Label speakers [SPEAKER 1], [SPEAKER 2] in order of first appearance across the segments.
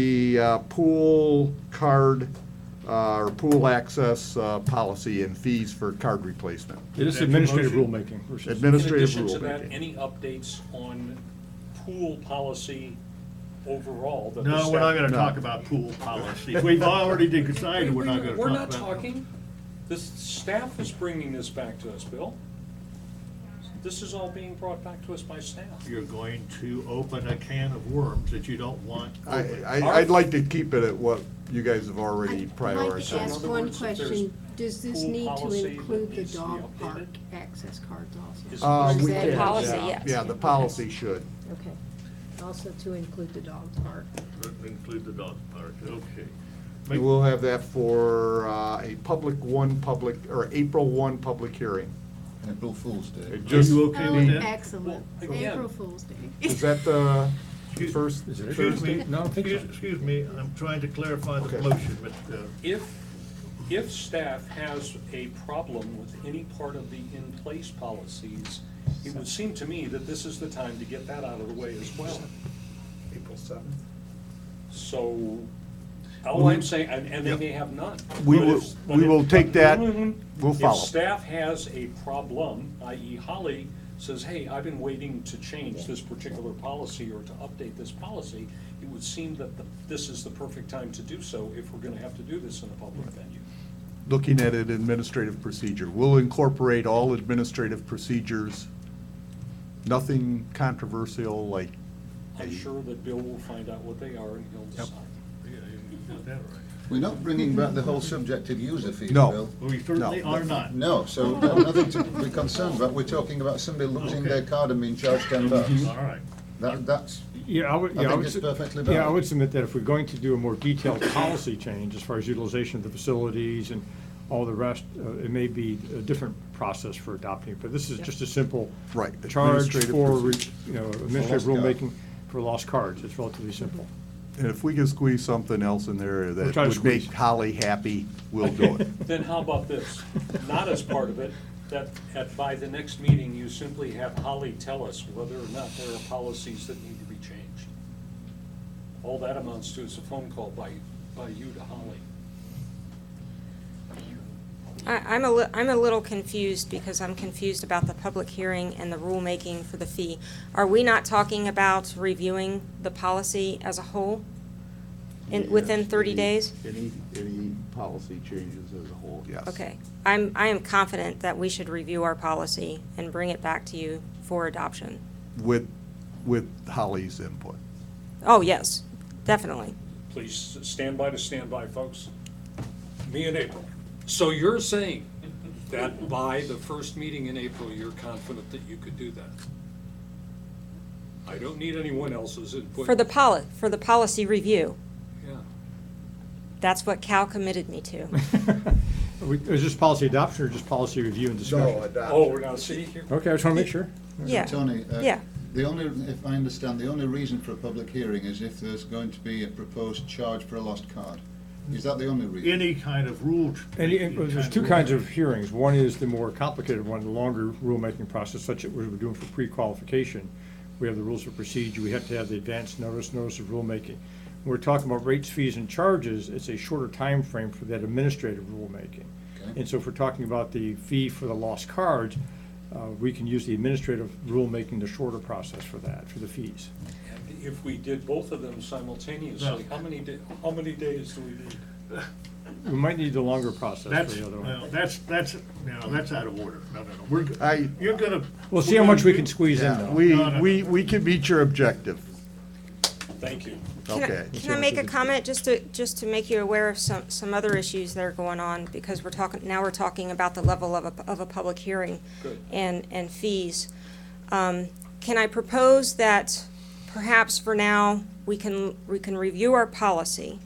[SPEAKER 1] the uh, pool card, uh, or pool access uh, policy and fees for card replacement.
[SPEAKER 2] It is
[SPEAKER 3] Is that your
[SPEAKER 2] administrative
[SPEAKER 3] motion?
[SPEAKER 2] rulemaking. versus-
[SPEAKER 1] Administrative
[SPEAKER 3] In addition to that,
[SPEAKER 1] rulemaking.
[SPEAKER 3] any updates on pool policy overall? that the
[SPEAKER 2] No, we're not gonna
[SPEAKER 3] staff-
[SPEAKER 1] No.
[SPEAKER 2] talk about pool policy. We've already decided we're not gonna talk about.
[SPEAKER 3] We're not talking, the staff is bringing this back to us, Bill. This is all being brought back to us by staff.
[SPEAKER 2] You're going to open a can of worms that you don't want
[SPEAKER 1] I,
[SPEAKER 2] open.
[SPEAKER 1] I- I'd like to keep it at what you guys have already
[SPEAKER 4] I'd like to
[SPEAKER 1] prioritized.
[SPEAKER 4] ask
[SPEAKER 3] other
[SPEAKER 4] one
[SPEAKER 3] words, if there's
[SPEAKER 4] question, does this
[SPEAKER 3] pool
[SPEAKER 4] need to
[SPEAKER 3] policy that
[SPEAKER 4] include the
[SPEAKER 3] needs to be
[SPEAKER 4] dog
[SPEAKER 3] updated?
[SPEAKER 4] park access cards
[SPEAKER 3] Is-
[SPEAKER 4] also?
[SPEAKER 1] Uh,
[SPEAKER 4] Or is
[SPEAKER 1] we
[SPEAKER 4] that
[SPEAKER 1] can,
[SPEAKER 5] Policy,
[SPEAKER 1] yeah.
[SPEAKER 5] yes.
[SPEAKER 1] Yeah, the policy should.
[SPEAKER 4] Okay, also to include the dog park.
[SPEAKER 2] Include the dog park, okay.
[SPEAKER 1] And
[SPEAKER 2] Make-
[SPEAKER 1] We'll have that for uh, a public one, public, or April one, public hearing.
[SPEAKER 6] And April Fool's Day.
[SPEAKER 2] Are
[SPEAKER 1] Just-
[SPEAKER 2] you okay with
[SPEAKER 4] Oh,
[SPEAKER 2] that?
[SPEAKER 4] excellent,
[SPEAKER 3] Well, again-
[SPEAKER 4] April Fool's Day.
[SPEAKER 1] Is that the
[SPEAKER 2] Excuse-
[SPEAKER 1] first
[SPEAKER 2] Excuse
[SPEAKER 1] Thursday?
[SPEAKER 2] me, excuse excuse me, I'm trying to clarify the
[SPEAKER 1] Okay.
[SPEAKER 2] motion, but, uh,
[SPEAKER 3] If, if staff has a problem with any part of the in-place policies, it would seem to me that this is the time to get that out of the way as well.
[SPEAKER 1] April seventh.
[SPEAKER 3] So, all I'm saying, and, and they may have none.
[SPEAKER 1] We
[SPEAKER 3] But
[SPEAKER 1] will-
[SPEAKER 3] if-
[SPEAKER 1] we will take that. We'll follow.
[SPEAKER 3] If staff has a problem, i.e. Holly says, hey, I've been waiting to change this particular policy or to update this policy, it would seem that the- this is the perfect time to do so if we're gonna have to do this in a public venue.
[SPEAKER 1] looking at an administrative procedure. We'll incorporate all administrative procedures, nothing controversial like,
[SPEAKER 3] I'm sure that Bill will find out what they are and he'll decide.
[SPEAKER 2] yeah, you got that right.
[SPEAKER 6] We're not bringing back the whole subject of user fees,
[SPEAKER 1] No.
[SPEAKER 6] Bill.
[SPEAKER 2] We certainly
[SPEAKER 1] No.
[SPEAKER 2] are not.
[SPEAKER 6] No, so no- nothing to be concerned about. We're talking about somebody losing their card and being charged ten bucks.
[SPEAKER 2] All right.
[SPEAKER 6] That, that's,
[SPEAKER 7] Yeah, I would,
[SPEAKER 6] I
[SPEAKER 7] yeah, I
[SPEAKER 6] think
[SPEAKER 7] would,
[SPEAKER 6] it's
[SPEAKER 7] su-
[SPEAKER 6] perfectly valid.
[SPEAKER 7] yeah, I would submit that if we're going to do a more detailed policy change as far as utilization of the facilities and all the rest, uh, it may be a different process for adopting, but this is just a simple
[SPEAKER 1] Right,
[SPEAKER 7] charge
[SPEAKER 1] administrative
[SPEAKER 7] for, re-
[SPEAKER 1] procedure.
[SPEAKER 7] you know, administrative
[SPEAKER 6] lost card.
[SPEAKER 7] rulemaking for lost cards. It's relatively simple.
[SPEAKER 1] and if we can squeeze something else in there
[SPEAKER 7] We'll
[SPEAKER 1] that
[SPEAKER 7] try to
[SPEAKER 1] would make
[SPEAKER 7] squeeze.
[SPEAKER 1] Holly happy, we'll do it.
[SPEAKER 3] Then how about this? Not as part of it, that at, by the next meeting, you simply have Holly tell us whether or not there are policies that need to be changed. All that amounts to is a phone call by, by you to Holly.
[SPEAKER 5] I, I'm a li- I'm a little confused because I'm confused about the public hearing and the rulemaking for the fee. Are we not talking about reviewing the policy as a whole? In, within thirty days?
[SPEAKER 1] Any, any policy changes as a whole, yes.
[SPEAKER 5] Okay. I'm, I am confident that we should review our policy and bring it back to you for adoption.
[SPEAKER 1] With, with Holly's input.
[SPEAKER 5] Oh, yes, definitely.
[SPEAKER 3] Please stand by to stand by, folks. Me and April. So you're saying that by the first meeting in April, you're confident that you could do that? I don't need anyone else's input.
[SPEAKER 5] For the poli, for the policy review.
[SPEAKER 3] Yeah.
[SPEAKER 5] That's what Cal committed me to.
[SPEAKER 7] We- Is this policy adoption or just policy review and discussion?
[SPEAKER 3] Oh, now see here.
[SPEAKER 7] Okay, I just want to make sure.
[SPEAKER 5] Yeah.
[SPEAKER 6] Tony, uh,
[SPEAKER 5] Yeah.
[SPEAKER 6] the only, if I understand, the only reason for a public hearing is if there's going to be a proposed charge for a lost card. Is that the only reason?
[SPEAKER 2] Any kind of rule. ch-
[SPEAKER 7] And
[SPEAKER 2] any
[SPEAKER 7] it- there's
[SPEAKER 2] kind
[SPEAKER 7] two
[SPEAKER 2] rule
[SPEAKER 7] kinds
[SPEAKER 2] change.
[SPEAKER 7] of hearings. One is the more complicated one, the longer rulemaking process, such as we're doing for pre-qualification. We have the rules of procedure, we have to have the advance notice, notice of rulemaking. When we're talking about rates, fees, and charges, it's a shorter time frame for that administrative rulemaking.
[SPEAKER 6] Okay.
[SPEAKER 7] And so if we're talking about the fee for the lost cards, uh, we can use the administrative rulemaking, the shorter process for that, for the fees.
[SPEAKER 3] If we did both of them simultaneously, how many, da- how many days do we need?
[SPEAKER 7] We might need the longer process
[SPEAKER 2] That's,
[SPEAKER 7] for the other one.
[SPEAKER 2] no, that's, that's, no, that's out of order. No, no, no, we're, go-
[SPEAKER 1] I-
[SPEAKER 2] you're gonna.
[SPEAKER 7] We'll see
[SPEAKER 2] we're
[SPEAKER 7] how much
[SPEAKER 2] gonna
[SPEAKER 7] we can
[SPEAKER 2] do-
[SPEAKER 7] squeeze in,
[SPEAKER 1] Yeah,
[SPEAKER 7] though.
[SPEAKER 1] we,
[SPEAKER 2] No, no.
[SPEAKER 1] we, we can meet your objective,
[SPEAKER 3] Thank you.
[SPEAKER 5] Can I-
[SPEAKER 1] okay.
[SPEAKER 5] Can I make a comment, just to, just to make you aware of some, some other issues that are going on, because we're talking, now we're talking about the level of a, of a public hearing
[SPEAKER 3] Good.
[SPEAKER 5] and, and fees. Um, Can I propose that perhaps for now, we can, we can review our policy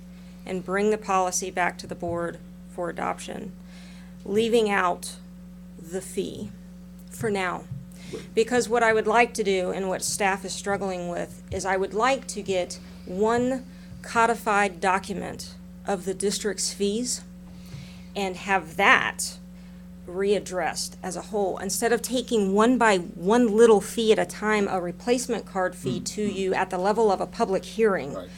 [SPEAKER 5] and bring the policy back to the board for adoption, leaving out the fee for now. Because what I would like to do and what staff is struggling with is I would like to get one codified document of the district's fees and have that readdressed as a whole. Instead of taking one by one little fee at a time, a replacement card fee to you at the level of a public hearing.
[SPEAKER 6] Right.